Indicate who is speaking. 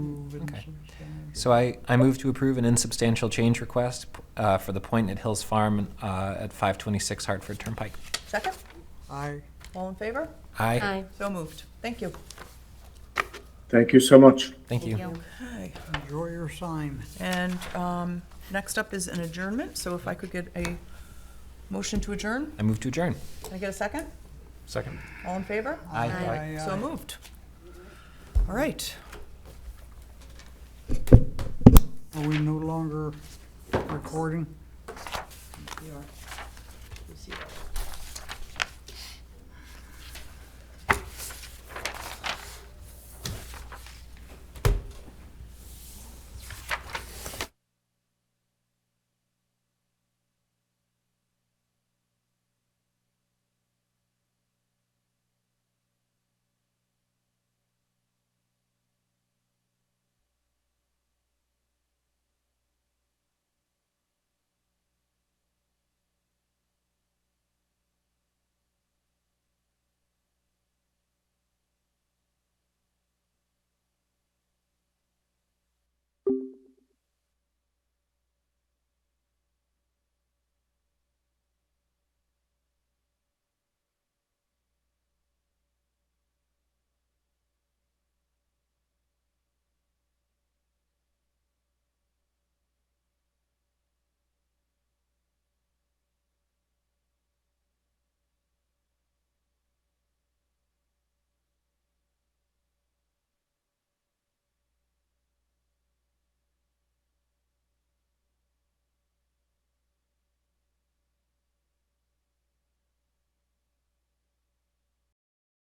Speaker 1: Okay. So I, I move to approve an insubstantial change request uh, for the Point at Hills Farm uh, at 526 Hartford Turnpike.
Speaker 2: Second?
Speaker 3: Aye.
Speaker 2: All in favor?
Speaker 1: Aye.
Speaker 4: Aye.
Speaker 2: So moved. Thank you.
Speaker 5: Thank you so much.
Speaker 1: Thank you.
Speaker 2: Okay.
Speaker 3: Enjoy your sign.
Speaker 2: And um, next up is an adjournment, so if I could get a motion to adjourn?
Speaker 1: I move to adjourn.
Speaker 2: Can I get a second?
Speaker 6: Second.
Speaker 2: All in favor?
Speaker 1: Aye.
Speaker 3: Aye,
Speaker 2: So
Speaker 3: aye.
Speaker 2: moved. All right.
Speaker 3: Are we no longer recording?